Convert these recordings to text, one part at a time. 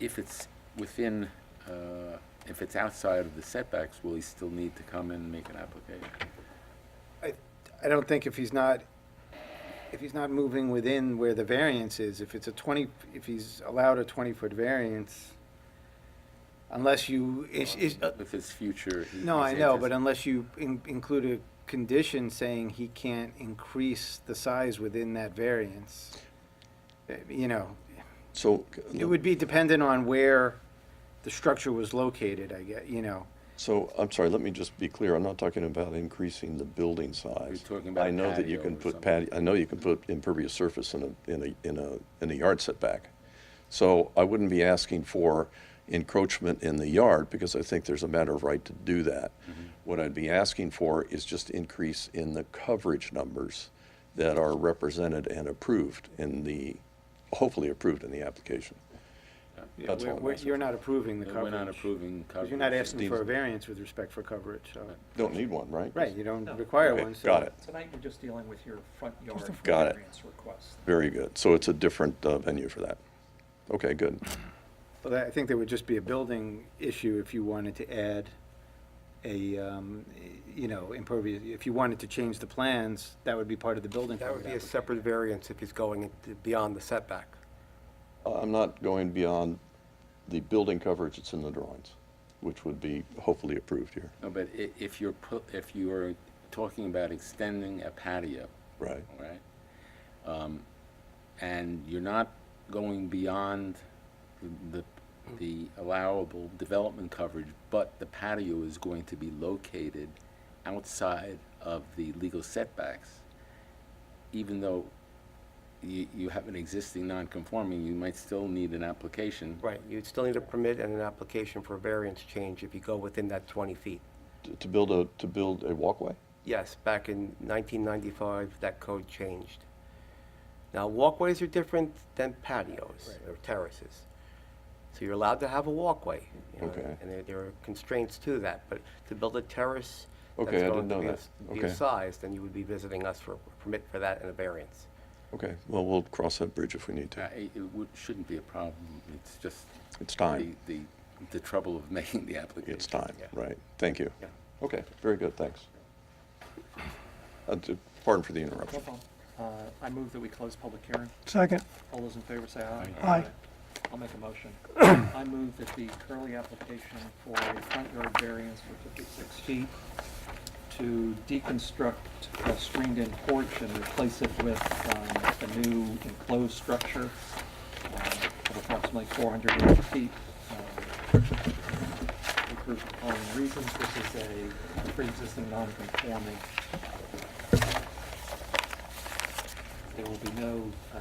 if it's within, uh, if it's outside of the setbacks, will he still need to come and make an application? I, I don't think if he's not, if he's not moving within where the variance is, if it's a 20, if he's allowed a 20-foot variance, unless you, is, is, With his future? he- no, I he's know, but antici- unless you in- include a condition saying he can't increase the size within that variance, eh, you know, So, it would be dependent on where the structure was located, I guess, you know. so, I'm sorry, let me just be clear, I'm not talking about increasing the building size. You're talking about I know that you patio can or put something. patio, I know you can put impervious surface in a, in a, in a, in a yard setback. So I wouldn't be asking for encroachment in the yard, because I think there's a matter of right to do that. Mm-hmm. What I'd be asking for is just increase in the coverage numbers that are represented and approved in the, hopefully approved in the application. Yeah, That's we're- all I'm we're- asking You're not approving the Uh, We're coverage. not approving Because coverage. you're not asking for a Steve's- variance with respect for coverage, so, Don't need one, right? right, you don't Oh. No. require Okay, one, so. Got it. Tonight, we're just dealing with your front yard Got it. variance request. Very good. So it's a different uh, venue for that. Okay, good. Well, that- I think there would just be a building issue if you wanted to add a, um, you know, impervious, if you wanted to change the plans, that would be part of the building. That would code be a application. separate variance if he's going into- beyond the setback. Uh, I'm not going beyond the building coverage that's in the drawings, which would be hopefully approved here. No, but i- if you're pu, if you are talking about extending a patio, Right. all right? Um, and you're not going beyond the, the- the allowable development coverage, but the patio is going to be located outside of the legal setbacks, even though you, you have an existing non-conforming, you might still need an application. Right, you'd still need a permit and an application for a variance change if you go within that 20 feet. To- To build a, to build a walkway? Yes, back in 1995, that code changed. Now, walkways are different than patios or terraces. So you're allowed to have a walkway. you know, Okay. And there- there are constraints to that, but to build a terrace that's Okay, I going didn't to know be a that. s- be a Okay. size, then you would be visiting us for a permit for that and a variance. Okay, well, we'll cross that bridge if we need Uh, to. It, it would, shouldn't be a problem, it's just. It's time. The, the, the trouble of making the application. It's time, Yeah. right? Thank you. Yeah. Okay, very good, thanks. Uh, d- Pardon for the No interruption. problem. Uh, I move that we close public hearing. Second, All those in favor say aye. Aye. Aye. I'll make a motion. I move that the Curly application for a front yard variance for 56 feet to deconstruct a screened-in porch and replace it with um, a new enclosed structure um, of approximately 480 feet. um, For group of following reasons, this is a pre-existing non-conforming. There will be no uh,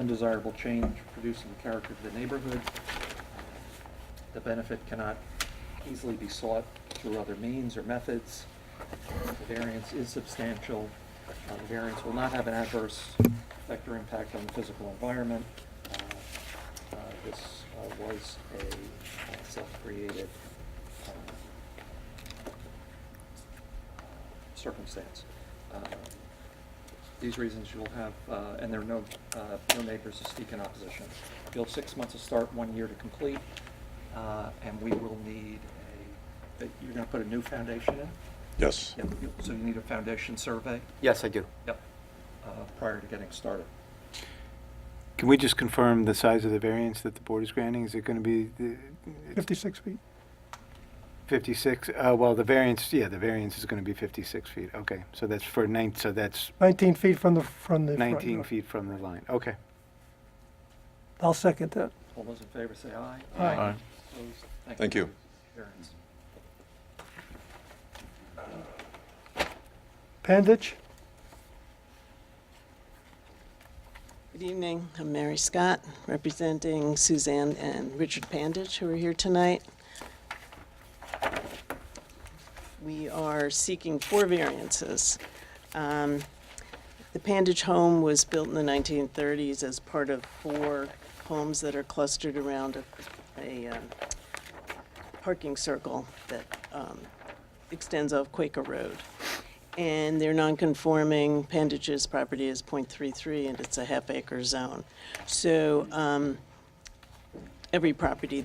undesirable change produced in the character of the neighborhood. The benefit cannot easily be sought through other means or methods. The variance is substantial. Uh, The variance will not have an adverse effect or impact on the physical environment. Uh, uh, This uh, was a uh, self-created uh, um, circumstance. Uh, these reasons you'll have, uh, and there are no, uh, no neighbors to speak in opposition. You'll have six months to start, one year to complete, uh, and we will need a, that you're gonna put a new foundation in? Yes. Yep, you- so you need a foundation survey? Yes, I do. Yep. Uh, prior to getting started. Can we just confirm the size of the variance that the board is granting? Is it going to be the- it's 56 feet. 56? Uh, Well, the variance, yeah, the variance is going to be 56 feet, okay. So that's for nine, so that's 19 feet from the, from the front 19 yard. feet from the line, okay. I'll second that. All those in favor say aye. Aye. Aye. Opposed? Thank you. Variance. Panditch? Good evening. I'm Mary Scott, representing Suzanne and Richard Panditch, who are here tonight. We are seeking four variances. Um, The Panditch home was built in the 1930s as part of four homes that are clustered around a- a um, parking circle that um, extends off Quaker Road. And their non-conforming appendages property is .33, and it's a half acre zone. So um, every property